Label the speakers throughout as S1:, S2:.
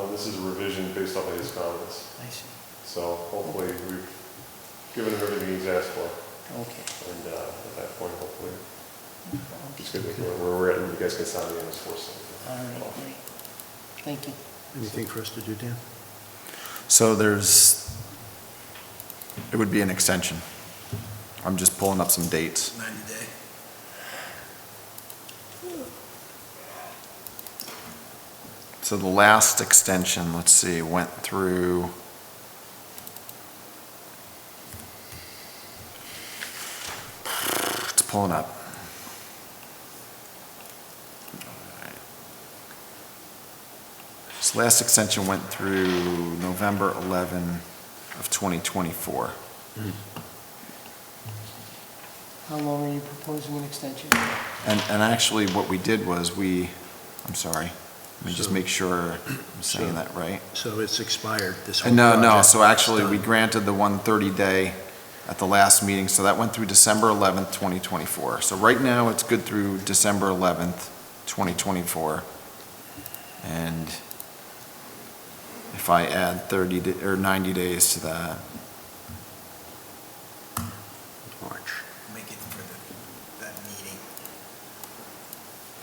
S1: Uh, some of his comments.
S2: I see,
S1: So hopefully, we've given him everything he's asked for,
S2: okay.
S1: and uh, at that point, hopefully,
S2: I'll be
S1: just gonna make where where we're at, and you guys can sign the MS4.
S2: All right, great. Thank you.
S3: Anything for us to do, Dan?
S4: So there's, it would be an extension. I'm just pulling up some dates.
S3: 90 day.
S4: So the last extension, let's see, went through. It's pulling up. This last extension went through November 11 of 2024.
S2: How long are you proposing an extension?
S4: And, and actually, what we did was we, I'm sorry, let me just
S3: So-
S4: make sure I'm
S3: so-
S4: saying that right.
S3: So it's expired, this whole
S4: And no, no,
S3: project
S4: so actually,
S3: is
S4: we
S3: done.
S4: granted the one thirty-day at the last meeting, so that went through December eleventh, twenty twenty-four. So right now, it's good through December eleventh, twenty twenty-four. And if I add thirty, da- or ninety days to that,
S3: March.
S5: make it for the, that meeting,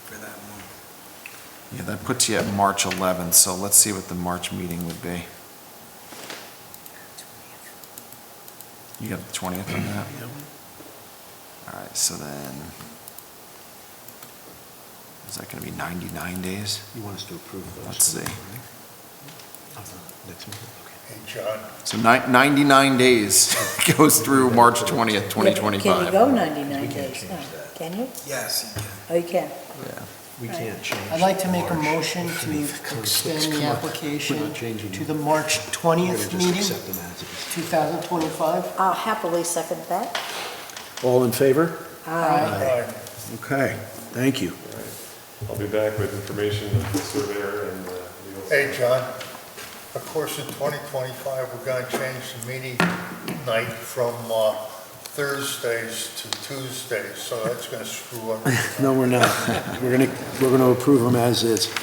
S5: for that one.
S4: yeah, that puts you at March eleventh, so let's see what the March meeting would be. You got the twentieth on that?
S3: Yep.
S4: All right, so then, is that gonna be ninety-nine days?
S3: You want us to approve those?
S4: Let's see.
S3: Of the Next meeting, okay.
S6: And John,
S4: So ni- ninety-nine days goes through March twentieth, twenty
S2: Can
S4: twenty-five.
S2: you go 99
S3: We can't
S2: days
S3: change
S2: now?
S7: Oh,
S3: that.
S2: Can you?
S5: Yes, you can.
S2: Oh, you can.
S3: We
S2: Right.
S3: can't change.
S2: I'd like to make a
S3: March.
S2: motion to
S3: If conflicts
S2: extend
S3: come
S2: the
S3: up, we're not
S2: application
S3: changing
S2: to
S3: them.
S2: the March
S3: We're gonna
S2: 20th
S3: just
S2: meeting,
S3: accept them as is.
S2: 2025.
S7: I'll happily second that.
S3: All in favor?
S2: Aye.
S6: Aye.
S3: Okay, thank you.
S1: I'll be back with information of the surveyor and uh, legal.
S6: hey, John, of course, in 2025, we're going to change the meeting night from uh, Thursdays to Tuesdays, so that's going to screw up.
S3: No, we're not. We're gonna, we're gonna approve them as is.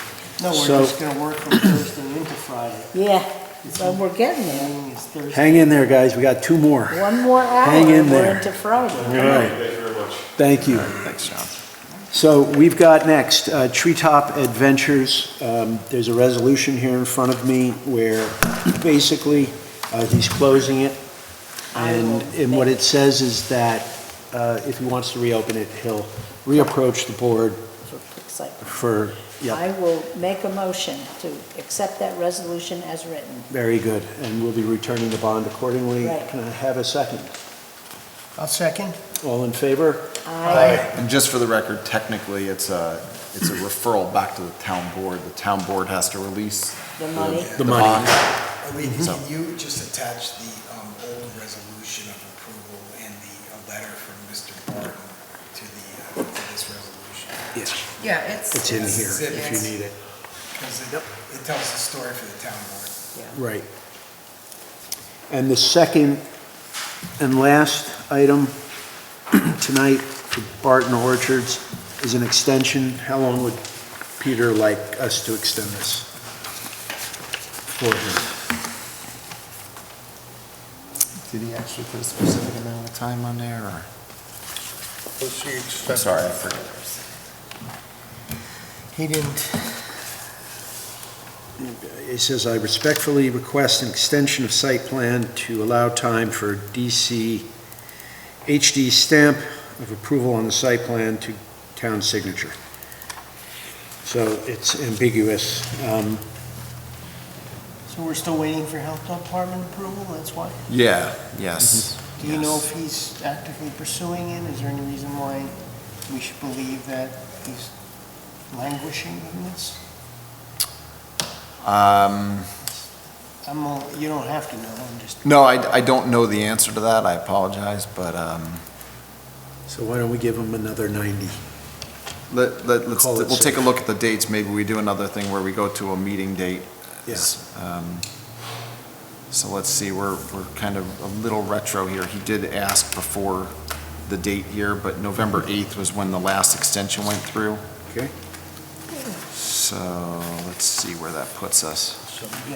S2: No, we're
S3: So-
S2: just going to work from Thursday into Friday.
S7: Yeah, so we're getting
S2: The
S7: there.
S2: meeting is Thursday.
S3: Hang in there, guys, we got two more.
S7: One more hour,
S3: Hang in
S7: and
S3: there.
S7: we're into Friday.
S3: All right,
S1: Thank you very much.
S3: thank you.
S4: Thanks, John.
S3: So we've got next, uh, Treetop Adventures. Um, There's a resolution here in front of me where basically uh, he's closing it.
S7: I will
S3: And, and what
S7: make-
S3: it says is that uh, if he wants to reopen it, he'll reapproach the board
S7: Looks like-
S3: for,
S7: I
S3: yeah,
S7: will make a motion to accept that resolution as written.
S3: very good. And we'll be returning the bond accordingly.
S7: Right.
S3: Can I have a second?
S2: I'll second.
S3: All in favor?
S7: Aye.
S4: And just for the record, technically, it's a, it's a referral back to the town board. The town board has to release
S7: The money,
S3: The money.
S5: I mean,
S4: So-
S5: can you just attach the um, old resolution of approval and the uh, letter from Mr. Barton to the, uh, to this resolution?
S3: Yes.
S8: Yeah, it's.
S3: It's in here if
S5: Yes.
S3: you need it.
S5: Because it, it tells the story for the town board.
S3: Right. And the second and last item tonight for Barton Orchards is an extension. How long would Peter like us to extend this for him?
S4: Did he actually put a specific amount of time on there, or?
S6: Let's see,
S4: I'm
S6: extend-
S4: sorry, I forgot.
S2: He didn't.
S3: It says, "I respectfully request an extension of site plan to allow time for DC, HD stamp of approval on the site plan to town signature." So it's ambiguous. Um,
S2: So we're still waiting for health department approval, that's why?
S4: Yeah, yes.
S2: Do you know
S4: yes.
S2: if he's actively pursuing it? Is there any reason why we should believe that he's languishing in this?
S4: Um,
S2: I'm, all- you don't have to know, I'm just,
S4: no, I, I don't know the answer to that. I apologize, but, um,
S3: So why don't we give him another 90?
S4: Let, let, let's,
S3: Call it
S4: we'll take a
S3: safe.
S4: look at the dates, maybe we do another thing where we go to a meeting date.
S3: Yes.
S4: Um, So let's see, we're, we're kind of a little retro here, he did ask before the date here, but November 8th was when the last extension went through.
S3: Okay.
S4: So, let's see where that puts us.
S2: so, yeah.